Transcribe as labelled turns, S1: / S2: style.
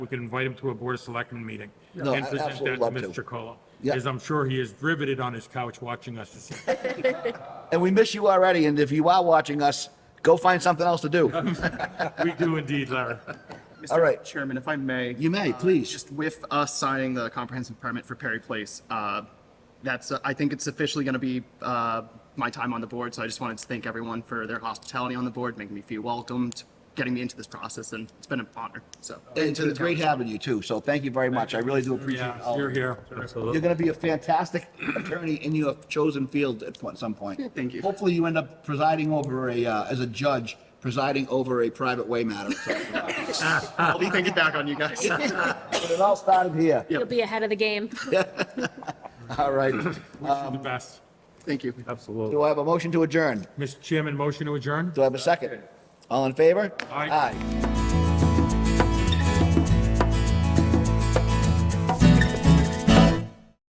S1: we could invite him to a Board of Selectmen meeting
S2: No,
S1: and
S2: I-
S1: present
S2: absolutely
S1: that to
S2: love to.
S1: Mr. Chacolo.
S2: Yeah.
S1: As I'm sure he is riveted on his couch watching us this evening.
S2: And we miss you already, and if you are watching us, go find something else to do.
S1: We do indeed, Larry.
S2: All right.
S3: Mr. Chairman, if I may.
S2: You may,
S3: uh,
S2: please.
S3: Just with us signing the comprehensive permit for Perry Place, uh, that's, uh, I think it's officially going to be uh, my time on the board. So I just wanted to thank everyone for their hospitality on the board, making me feel welcomed, getting me into this process, and it's been an honor, so.
S2: It's been great having you too, so thank you very much. I really do appreciate
S1: Yeah,
S2: all.
S1: you're
S2: of you.
S1: here.
S2: You're gonna be a fantastic attorney in your chosen field at point- some point.
S3: Thank you.
S2: Hopefully you end up presiding over a, uh, as a judge, presiding over a private way matter. So uh,
S3: I'll be thinking back on you guys.
S2: It all started here.
S4: You'll be ahead of the game.
S2: All right.
S1: Wish you the best.
S3: Thank you.
S5: Absolutely.
S2: Do I have a motion to adjourn?
S1: Mr. Chairman, motion to adjourn?
S2: Do I have a second? All in favor?
S1: Aye.
S2: Aye.